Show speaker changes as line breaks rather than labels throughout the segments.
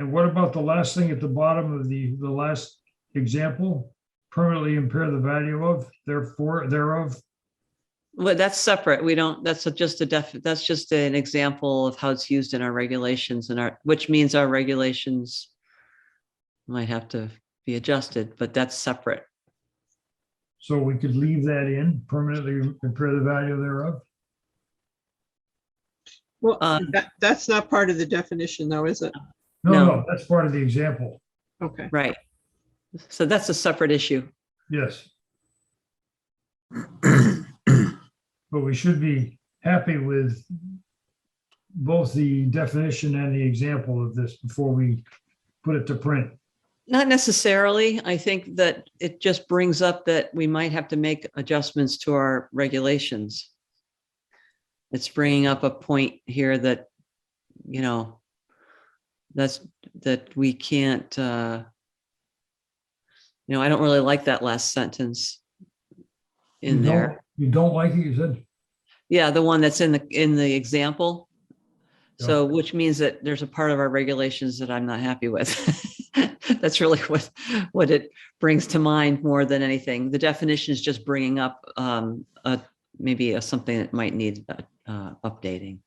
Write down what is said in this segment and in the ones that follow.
And what about the last thing at the bottom of the, the last example? Permanently impair the value of, therefore, thereof.
Well, that's separate. We don't, that's a- just a def, that's just an example of how it's used in our regulations and our, which means our regulations might have to be adjusted, but that's separate.
So we could leave that in, permanently impair the value thereof.
Well,
Um,
that, that's not part of the definition though, is it?
No,
No.
no, that's part of the example.
Okay.
Right. So that's a separate issue.
Yes. But we should be happy with both the definition and the example of this before we put it to print.
Not necessarily. I think that it just brings up that we might have to make adjustments to our regulations. It's bringing up a point here that, you know, that's, that we can't, uh, you know, I don't really like that last sentence in
You don't-
there.
You don't like it, you said?
Yeah, the one that's in the, in the example.
Yeah.
So which means that there's a part of our regulations that I'm not happy with. That's really what, what it brings to mind more than anything. The definition is just bringing up, um, a, maybe a, something that might need, uh, uh, updating.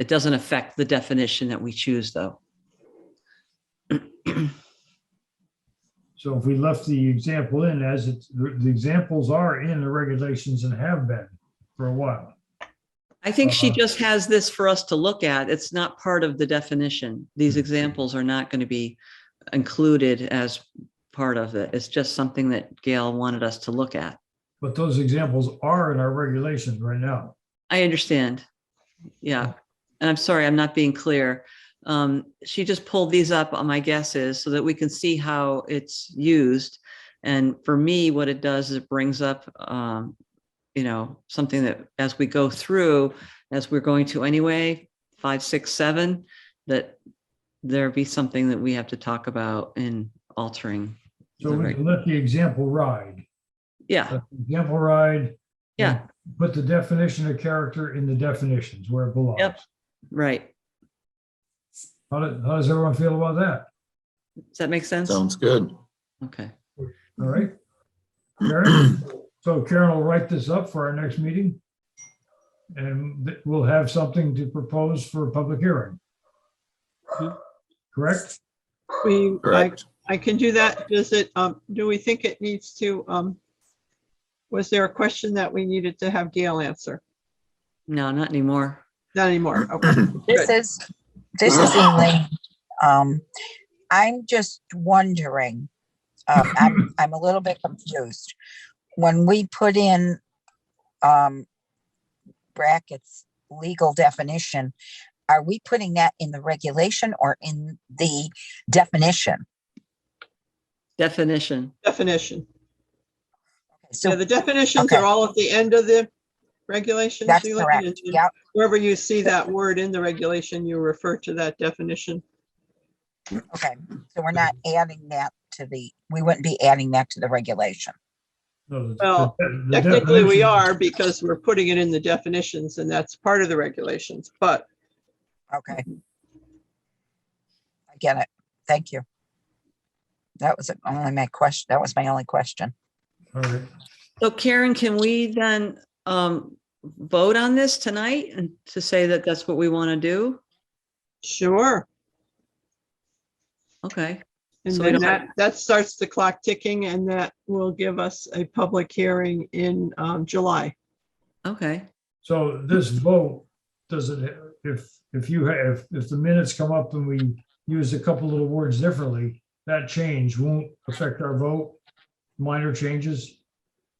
It doesn't affect the definition that we choose though.
So if we left the example in as it's, the the examples are in the regulations and have been for a while.
I think she
Uh-huh.
just has this for us to look at. It's not part of the definition. These examples are not going to be included as part of it. It's just something that Gail wanted us to look at.
But those examples are in our regulations right now.
I understand. Yeah. And I'm sorry, I'm not being clear. Um, she just pulled these up, uh, my guess is, so that we can see how it's used. And for me, what it does is it brings up, um, you know, something that as we go through, as we're going to anyway, five, six, seven, that there be something that we have to talk about in altering.
So
the
we
reg-
can let the example ride.
Yeah,
Let the Example ride.
Yeah.
Put the definition of character in the definitions where it belongs.
Yep. right.
How does, how does everyone feel about that?
Does that make sense?
Sounds good.
Okay.
All right? Karen? So Karen will write this up for our next meeting. And th- we'll have something to propose for a public hearing. Correct?
We, I,
Correct.
I can do that. Does it, um, do we think it needs to, um, was there a question that we needed to have Gail answer?
No, not anymore.
Not anymore. Okay.
This is, this is Elaine. Um, I'm just wondering, um, I'm, I'm a little bit confused. When we put in, um, brackets, legal definition, are we putting that in the regulation or in the definition?
Definition.
Definition. Yeah,
So
the definitions are
Okay.
all at the end of the regulations.
that's
Elaine,
correct.
and
Yep,
Wherever you see that word in the regulation, you refer to that definition.
okay. So we're not adding that to the, we wouldn't be adding that to the regulation.
No, the- the-
Well,
the
Technically, we
definition-
are because we're putting it in the definitions and that's part of the regulations, but
Okay. I get it. Thank you. That was only my question. That was my only question.
All right.
So Karen, can we then um vote on this tonight and to say that that's what we want to do?
sure.
Okay,
And
So we
then
don't-
that, that starts the clock ticking and that will give us a public hearing in um, July.
okay.
So this
Mm-hmm.
vote, does it, if, if you have, if the minutes come up and we use a couple little words differently, that change won't affect our vote? Minor changes?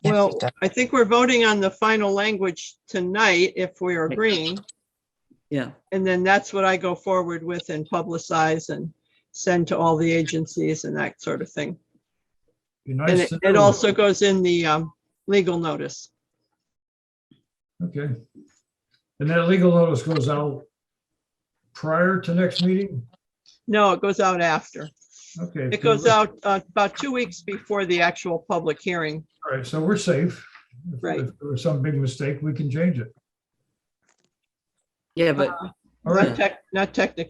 Yes, it
Well,
does.
I think we're voting on the final language tonight if we are agreeing.
Yeah,
And then that's what I go forward with and publicize and send to all the agencies and that sort of thing.
Be
And
nice
it
to
it
know.
also goes in the um, legal notice.
Okay. And that legal notice goes out prior to next meeting?
No, it goes out after.
Okay.
It goes out uh, about two weeks before the actual public hearing.
All right, so we're safe. If-
Right.
If there was some big mistake, we can change it.
yeah, but
All right.
Not tech- Not technically